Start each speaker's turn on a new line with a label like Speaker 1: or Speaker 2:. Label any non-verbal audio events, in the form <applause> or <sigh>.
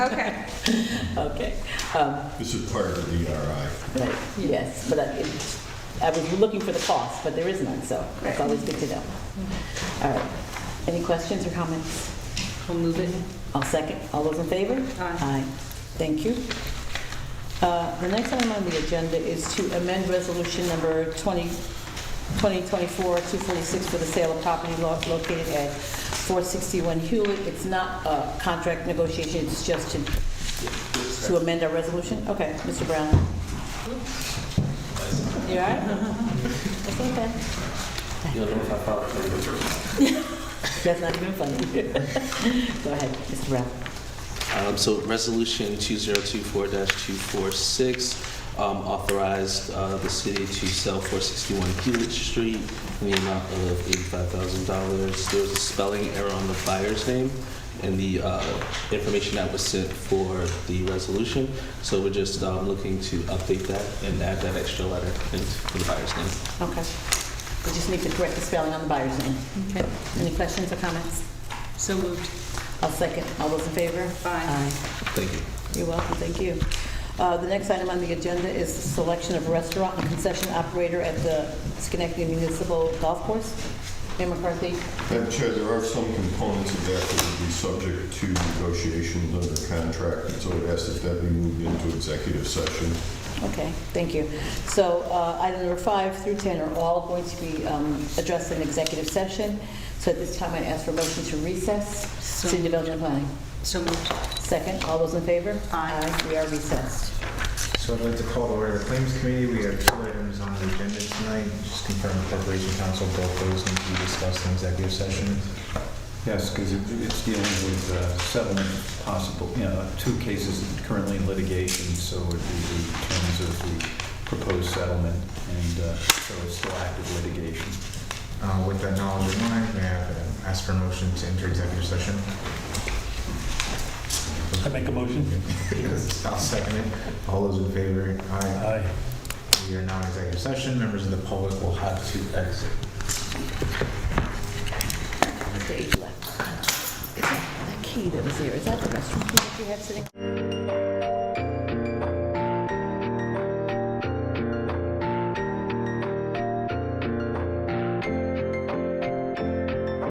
Speaker 1: This is part of the DRI.
Speaker 2: Right, yes, um, but I, it- I was looking for the cost, but there is none, so it's always good to know. All right, any questions or comments?
Speaker 3: I'll move it.
Speaker 2: I'll second, all those in favor?
Speaker 3: Aye.
Speaker 2: Thank you. Uh, The next item on the agenda is to amend resolution number 20 2024-246 for the sale of property lo- located at 461 Hewlett. It's not a contract negotiation, it's just to to amend our resolution? Okay, Mr. Brown? You all right? <laughs> That's okay.
Speaker 4: You'll know if I follow through.
Speaker 2: That's not even funny. <laughs> Go ahead, Mr. Brown.
Speaker 4: Um, So Resolution 2024-246 um, authorized uh, the city to sell 461 Hewlett Street in the amount of $85,000. There was a spelling error on the buyer's name and the uh, information that was sent for the resolution. So we're just um, looking to update that and add that extra letter into the buyer's name.
Speaker 2: Okay. We just need to correct the spelling on the buyer's name.
Speaker 3: Okay.
Speaker 2: Any questions or comments?
Speaker 3: So moved.
Speaker 2: I'll second. All those in favor?
Speaker 3: Aye.
Speaker 4: Thank you.
Speaker 2: Aye. You're welcome, thank you. Uh, The next item on the agenda is the selection of restaurant and concession operator at the Schenectady Municipal Golf Course. Mayor McCarthy?
Speaker 1: Madam Chair, there are some components of that that would be subject to negotiations under contract, and so it has to that be moved into executive session.
Speaker 2: Okay, thank you. So uh, item number five through 10 are all going to be um, addressed in executive session. So at this time, I ask for a motion to recess.
Speaker 3: So-
Speaker 2: City Development Planning.
Speaker 3: So moved.
Speaker 2: Second, all those in favor?
Speaker 3: Aye.
Speaker 2: We are recessed.
Speaker 5: So I'd like to call the order of the Claims Committee. We have two items on the agenda tonight. Just confirm the Corporation Council, both those need to be discussed in executive session.
Speaker 6: Yes, because it's dealing with uh, settlement possible, you know, two cases currently in litigation, so it would be the terms of the proposed settlement, and uh, so it's still active litigation.
Speaker 5: Uh, With that knowledge in mind, may I have, uh, ask for a motion to enter executive session? <laughs>
Speaker 7: I make a motion.
Speaker 5: Yes, I'll second it. All those in favor? Aye.
Speaker 7: Aye.
Speaker 5: We are now in executive session. Members of the public will have to exit.
Speaker 2: The key that was there, is that the restroom key that you have sitting?